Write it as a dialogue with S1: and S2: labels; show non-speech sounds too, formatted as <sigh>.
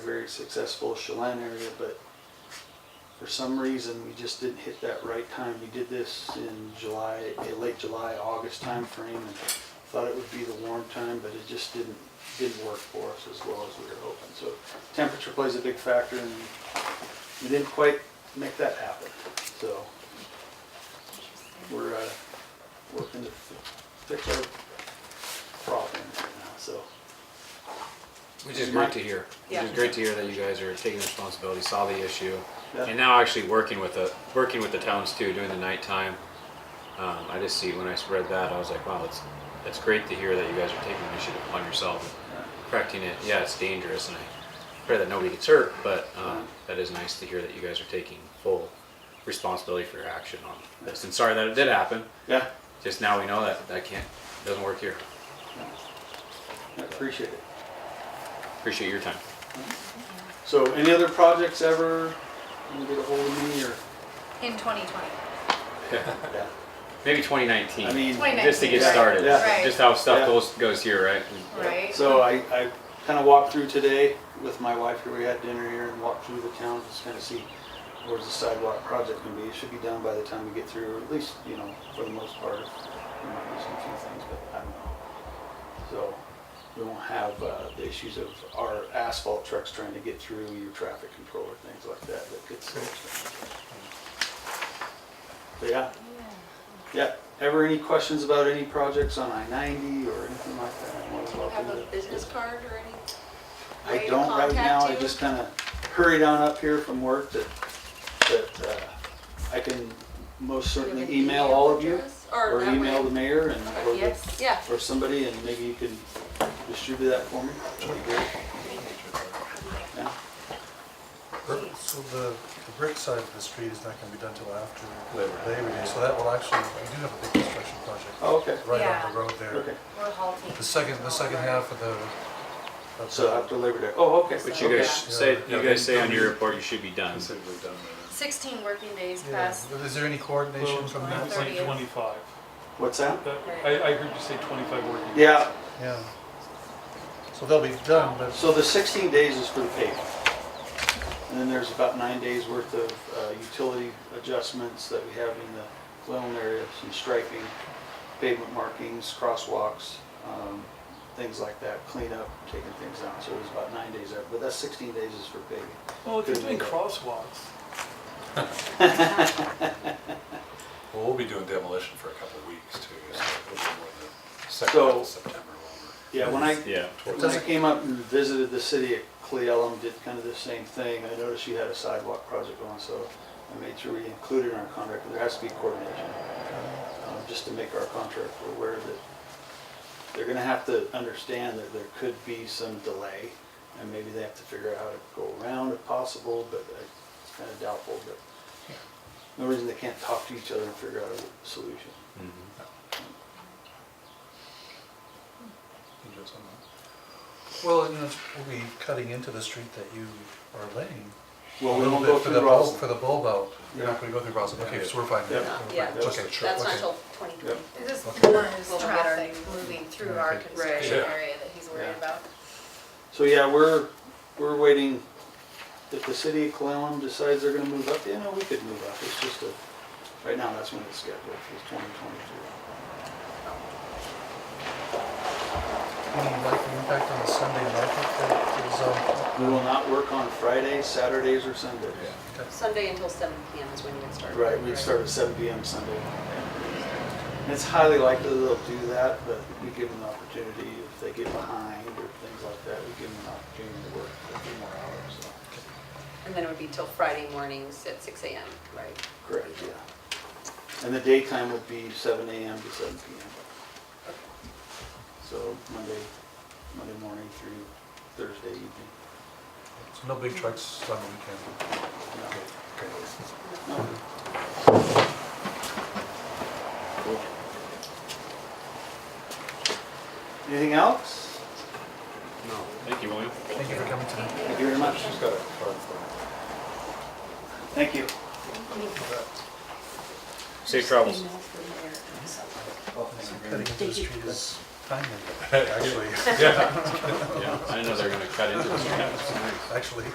S1: very successful Chelan area, but for some reason, we just didn't hit that right time. We did this in July, eh, late July, August timeframe, and thought it would be the warm time, but it just didn't, didn't work for us as well as we were hoping. So temperature plays a big factor, and we didn't quite make that happen, so we're, uh, working to fi- fix our problem right now, so.
S2: Which is great to hear. Which
S3: Yeah.
S2: is great to hear that you guys are taking responsibility, saw the issue,
S1: Yeah.
S2: and now actually working with the working with the towns too, doing the nighttime. Um, I just see when I read that, I was like, wow, that's that's great to hear that you guys are taking initiative upon yourself, and correcting it. Yeah, it's dangerous, and I pray that nobody gets hurt, but um, that is nice to hear that you guys are taking full responsibility for your action on this. And sorry that it did happen.
S1: Yeah,
S2: Just now we know that that can't doesn't work here.
S1: I appreciate it.
S2: Appreciate your time.
S1: So any other projects ever, you can get a hold of me or?
S3: In 2020.
S1: Yeah.
S2: Maybe 2019.
S1: I mean,
S2: just to get
S1: Yeah,
S2: started.
S1: yeah.
S3: Right.
S2: Just how stuff
S1: Yeah.
S2: goes goes here, right?
S3: Right.
S1: so I, I kind of walked through today with my wife here, we had dinner here and walked through the town, just kind of see where's the sidewalk project gonna be. It should be done by the time we get through, or at least, you know, for the most part. There might be some few things, but I don't know. So we won't have uh, the issues of our asphalt trucks trying to get through your traffic control or things like that. That gets. But yeah. Yeah. Ever any questions about any projects on I ninety or anything like that? I'm always welcome
S3: Have a
S1: to-
S3: business card or anything?
S1: I
S3: way to
S1: don't right now, I
S3: contact you?
S1: just kind of hurried on up here from work that, that uh, I can most certainly email all of you.
S3: Or
S1: Or
S3: that
S1: email
S3: way.
S1: the mayor and, or the-
S3: Yes, yeah.
S1: or somebody, and maybe you can distribute that for me. That'd be great. Yeah.
S4: So the, the brick side of the street is not gonna be done till after Labor Day, so that will actually, we do have a big construction project
S1: Oh, Okay,
S4: right
S3: Yeah.
S4: on the road
S1: okay.
S4: there.
S3: We're halting.
S4: The second, the second half of the. of
S1: So
S4: the-
S1: after Labor Day, oh, okay.
S2: But you
S1: okay.
S2: guys say
S4: Yeah.
S2: you guys say on your report you should be done.
S5: Considerably done by
S3: 16 working days
S4: Yeah,
S3: past.
S4: but is there any coordination from
S3: Well,
S4: that?
S5: then. It's
S3: Thirtieth.
S5: like twenty-five.
S1: What's that?
S5: That- I, I heard you say twenty-five working. days.
S1: Yeah,
S4: Yeah. So they'll be done, but
S1: so the 16 days is for the paving. And then there's about nine days worth of uh, utility adjustments that we have in the Glen area, some striping, pavement markings, crosswalks, um, things like that, cleanup, taking things out. So it was about nine days there, but that 16 days is for paving.
S5: Well, if you're doing crosswalks,
S6: Well, we'll be doing demolition for a couple of weeks too, so it'll be more than second
S1: So-
S6: half of September.
S1: Yeah, when I,
S2: Yeah.
S1: When I came up and visited the city at Cle Elum, did kind of the same thing, I noticed you had a sidewalk project on, so I made sure we included in our contract, there has to be coordination, um, just to make our contractor aware that they're gonna have to understand that there could be some delay, and maybe they have to figure out how to go around if possible, but I- it's kind of doubtful, but no reason they can't talk to each other and figure out a solution.
S5: you do it somewhere.
S4: Well, you know, it's- we'll be cutting into the street that you are laying.
S1: Well,
S4: A
S1: we
S4: little
S1: won't go
S4: bit for the
S1: through
S4: bulb-
S1: Roslyn.
S4: For the bulb out. You're
S1: Yeah.
S4: not gonna go through Roslin, okay, so we're fine.
S1: Yeah.
S4: We're fine.
S7: Yeah,
S4: Okay,
S1: that's-
S4: sure,
S7: That's
S4: okay.
S7: not till 2020.
S3: This
S4: Okay.
S3: more
S7: Little bit
S3: traffic
S7: better.
S3: moving through our
S4: Right.
S3: construction
S6: Yeah.
S3: area that he's worried
S1: Yeah.
S3: about.
S1: So yeah, we're, we're waiting, if the city of Clallam decides they're gonna move up, you know, we could move up, it's just a, right now, that's when it's scheduled, it's twenty twenty-two.
S4: Any like impact on the Sunday market that is, um,
S1: We will not work on Fridays, Saturdays, or Sundays.
S7: Sunday until 7 PM is when you would start.
S1: Right, we start at seven PM Sunday. And It's highly likely they'll do that, but we give them the opportunity, if they get behind or things like that, we give them an opportunity to work a few more hours, so.
S7: And then it would be till Friday mornings at 6 AM, right?
S1: Correct, yeah. And the daytime would be seven AM to seven PM. So Monday, Monday morning through Thursday evening.
S4: so no big trucks on the weekend?
S1: No.
S4: Okay.
S1: No. Anything else?
S2: No. Thank you, William.
S4: Thank you for coming tonight.
S1: Thank you very much. Thank you.
S2: Safe travels.
S4: Cutting into the street is kind of, actually,
S6: Yeah.
S2: Yeah, I didn't know they were gonna cut into us. That's nice.
S4: <laughs> actually.